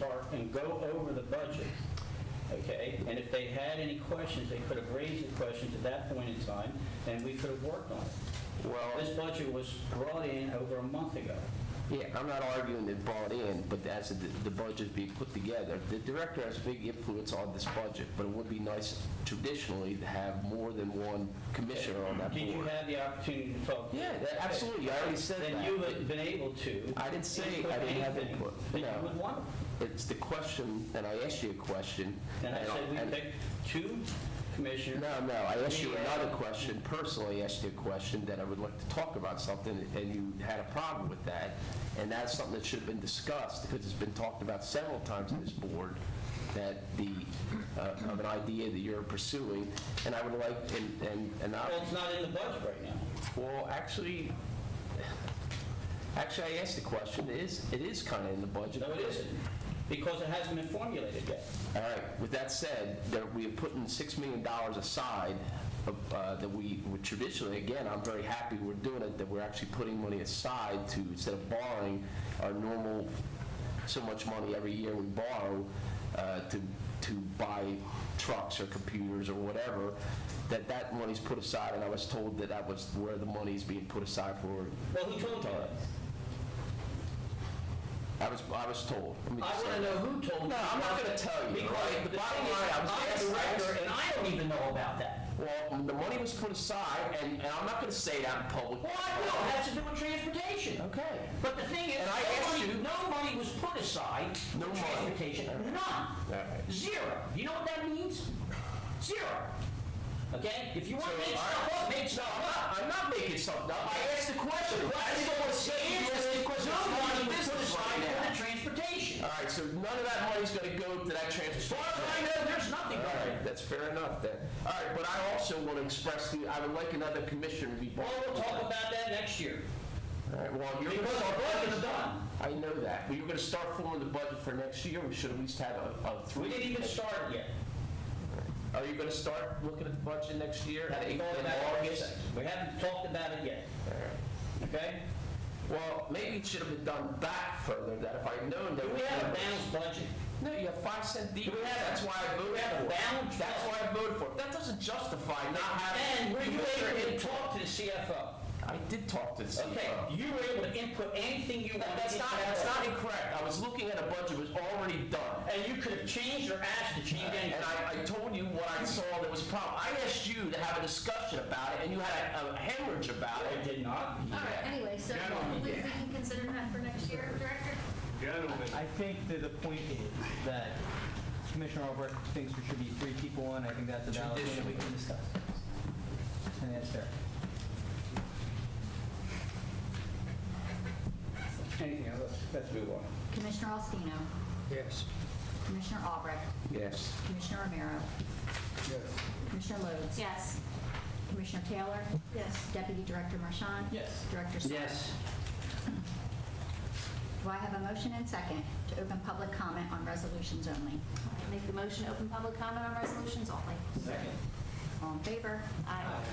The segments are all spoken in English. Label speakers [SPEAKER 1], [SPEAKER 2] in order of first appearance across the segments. [SPEAKER 1] Park and go over the budget, okay? And if they had any questions, they could have raised the questions at that point in time, and we could have worked on it.
[SPEAKER 2] Well-
[SPEAKER 1] This budget was brought in over a month ago.
[SPEAKER 2] Yeah, I'm not arguing it brought in, but as the the budget being put together, the director has big influence on this budget, but it would be nice traditionally to have more than one commissioner on that
[SPEAKER 1] Did you
[SPEAKER 2] board.
[SPEAKER 1] have the opportunity to talk? to-
[SPEAKER 2] Yeah, that- absolutely, I already said
[SPEAKER 1] Then
[SPEAKER 2] that.
[SPEAKER 1] you would have been able to.
[SPEAKER 2] I didn't say I didn't have
[SPEAKER 1] anything
[SPEAKER 2] input,
[SPEAKER 1] That
[SPEAKER 2] no.
[SPEAKER 1] you would want.
[SPEAKER 2] It's the question, and I asked you a question.
[SPEAKER 1] And I said, we
[SPEAKER 2] and-
[SPEAKER 1] picked two commissioners.
[SPEAKER 2] No, no, I asked you
[SPEAKER 1] We had-
[SPEAKER 2] another question, personally asked you a question that I would like to talk about something, and you had a problem with that, and that's something that should have been discussed, because it's been talked about several times in this board, that the, uh, of an idea that you're pursuing, and I would like, and, and and I...
[SPEAKER 1] Well, it's not in the budget right now.
[SPEAKER 2] Well, actually, actually, I asked the question, it is, it is kind of in the budget.
[SPEAKER 1] No, it isn't, because it hasn't been formulated yet.
[SPEAKER 2] All right, with that said, there, we have put in $6 million aside of, uh, that we would traditionally, again, I'm very happy we're doing it, that we're actually putting money aside to, instead of borrowing our normal, so much money every year we borrow uh, to, to buy trucks or computers or whatever, that that money's put aside, and I was told that that was where the money's being put aside for.
[SPEAKER 1] Well, who told you that?
[SPEAKER 2] I was, I was told. Let me
[SPEAKER 1] I
[SPEAKER 2] just
[SPEAKER 1] want
[SPEAKER 2] say
[SPEAKER 1] to know who told you.
[SPEAKER 2] No, I'm not gonna tell you,
[SPEAKER 1] Because
[SPEAKER 2] right?
[SPEAKER 1] the
[SPEAKER 2] The bottom
[SPEAKER 1] thing is,
[SPEAKER 2] line, I was
[SPEAKER 1] I'm
[SPEAKER 2] asked-
[SPEAKER 1] a
[SPEAKER 2] I
[SPEAKER 1] director,
[SPEAKER 2] was-
[SPEAKER 1] and I don't even know about that.
[SPEAKER 2] Well, the money was put aside, and, and I'm not going to say that in public.
[SPEAKER 1] Well, I know, it has to do with transportation.
[SPEAKER 2] Okay.
[SPEAKER 1] But the thing is,
[SPEAKER 2] And I asked
[SPEAKER 1] nobody,
[SPEAKER 2] you-
[SPEAKER 1] nobody was put aside for
[SPEAKER 2] No money.
[SPEAKER 1] transportation,
[SPEAKER 2] All right. All right.
[SPEAKER 1] none, zero. You know what that means? Zero. Okay? If you want to
[SPEAKER 2] So,
[SPEAKER 1] make
[SPEAKER 2] all
[SPEAKER 1] stuff
[SPEAKER 2] right.
[SPEAKER 1] up, make stuff
[SPEAKER 2] I'm
[SPEAKER 1] up.
[SPEAKER 2] not, I'm not making something up. I asked the question. I just don't want to say you asked the question.
[SPEAKER 1] Nobody
[SPEAKER 2] Money
[SPEAKER 1] was
[SPEAKER 2] was
[SPEAKER 1] put aside for the
[SPEAKER 2] right now.
[SPEAKER 1] transportation.
[SPEAKER 2] All right, so none of that money's going to go to that
[SPEAKER 1] As
[SPEAKER 2] transportation.
[SPEAKER 1] far as I know, there's nothing
[SPEAKER 2] All
[SPEAKER 1] going on.
[SPEAKER 2] right, that's fair enough then. All right, but I also want to express to you, I would like another commissioner to be brought.
[SPEAKER 1] Well, we'll talk about that next year.
[SPEAKER 2] All right, well, you're.
[SPEAKER 1] Because our budget's done.
[SPEAKER 2] I know that. We were going to start forming the budget for next year. We should at least have a, a
[SPEAKER 1] We
[SPEAKER 2] three.
[SPEAKER 1] didn't even start yet.
[SPEAKER 2] Are you going to start looking at the budget next year? at
[SPEAKER 1] Haven't thought
[SPEAKER 2] April,
[SPEAKER 1] about it
[SPEAKER 2] August?
[SPEAKER 1] yet. We haven't talked about it yet, okay?
[SPEAKER 2] Well, maybe it should have been done back further, that if I'd known that.
[SPEAKER 1] Do we have a balanced budget?
[SPEAKER 2] No, you have five cent decrease.
[SPEAKER 1] we have-
[SPEAKER 2] That's why I voted
[SPEAKER 1] have a
[SPEAKER 2] for it.
[SPEAKER 1] balanced
[SPEAKER 2] That's
[SPEAKER 1] budget?
[SPEAKER 2] why I voted for it. That doesn't justify not having.
[SPEAKER 1] And were you able to
[SPEAKER 2] Commissioner
[SPEAKER 1] talk to the CFO?
[SPEAKER 2] input. I did talk to the CFO.
[SPEAKER 1] Okay, you were able to input anything you wanted.
[SPEAKER 2] That- That's not,
[SPEAKER 1] into that
[SPEAKER 2] that's not
[SPEAKER 1] budget.
[SPEAKER 2] incorrect. I was looking at a budget that was already done.
[SPEAKER 1] And you could have changed or asked to change
[SPEAKER 2] And
[SPEAKER 1] anything.
[SPEAKER 2] I, I told you what I saw that was a problem. I asked you to have a discussion about it, and you had a- a hemorrhage about
[SPEAKER 1] I
[SPEAKER 2] it.
[SPEAKER 1] did not.
[SPEAKER 3] All right, anyway, so
[SPEAKER 4] Gentlemen.
[SPEAKER 3] we we can consider that for next year, Director?
[SPEAKER 4] Gentlemen,
[SPEAKER 5] I think that the point is that Commissioner Albrecht thinks there should be three people on, I think that's a valid thing that we can discuss. And that's fair.
[SPEAKER 1] Anything else? Let's move on.
[SPEAKER 3] Commissioner Alstino. Yes. Commissioner Albrecht.
[SPEAKER 2] Yes.
[SPEAKER 3] Commissioner Romero. Yes. Commissioner Lodes. Yes. Commissioner Taylor. Yes. Deputy Director Marchand.
[SPEAKER 5] Yes.
[SPEAKER 3] Director Stoll. Do I have a motion and second to open public comment on resolutions only?
[SPEAKER 6] Make the motion to open public comment on resolutions only.
[SPEAKER 5] Second.
[SPEAKER 3] All in favor?
[SPEAKER 6] Aye.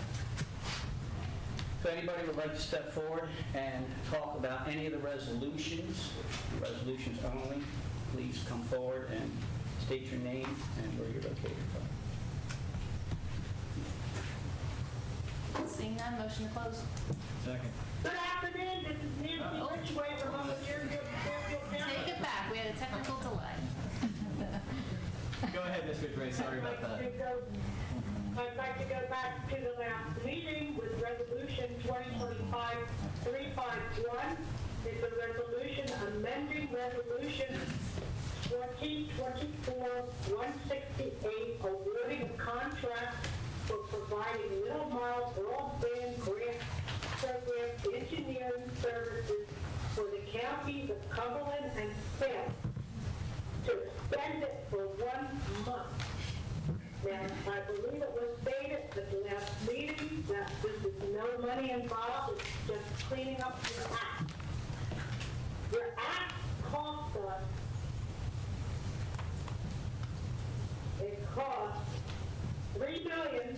[SPEAKER 1] If anybody would like to step forward and talk about any of the resolutions, resolutions only, please come forward and state your name and where you're located from.
[SPEAKER 6] Seeing none, motion to close.
[SPEAKER 5] Second.
[SPEAKER 7] Good afternoon, this is Nancy Lynchway from over here in Fairfield
[SPEAKER 6] Take
[SPEAKER 7] County.
[SPEAKER 6] it back, we had a technical delay.
[SPEAKER 5] Go ahead, Ms. Ridgway, sorry
[SPEAKER 7] I'd
[SPEAKER 5] about
[SPEAKER 7] like to
[SPEAKER 5] that.
[SPEAKER 7] go- I'd like to go back to the last meeting with Resolution 2025-351. It's a resolution amending Resolution 2024-168, awarding a contract for providing middle mile broadband grant program engineering services for the counties of Cumberland and Kent to extend it for one month. Now, I believe it was stated at the last meeting that this is no money involved, it's just cleaning up your act. Your act cost us, it cost three million,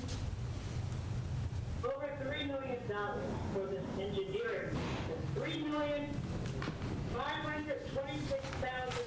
[SPEAKER 7] over three million dollars for this engineering. Three million, five hundred twenty-six thousand,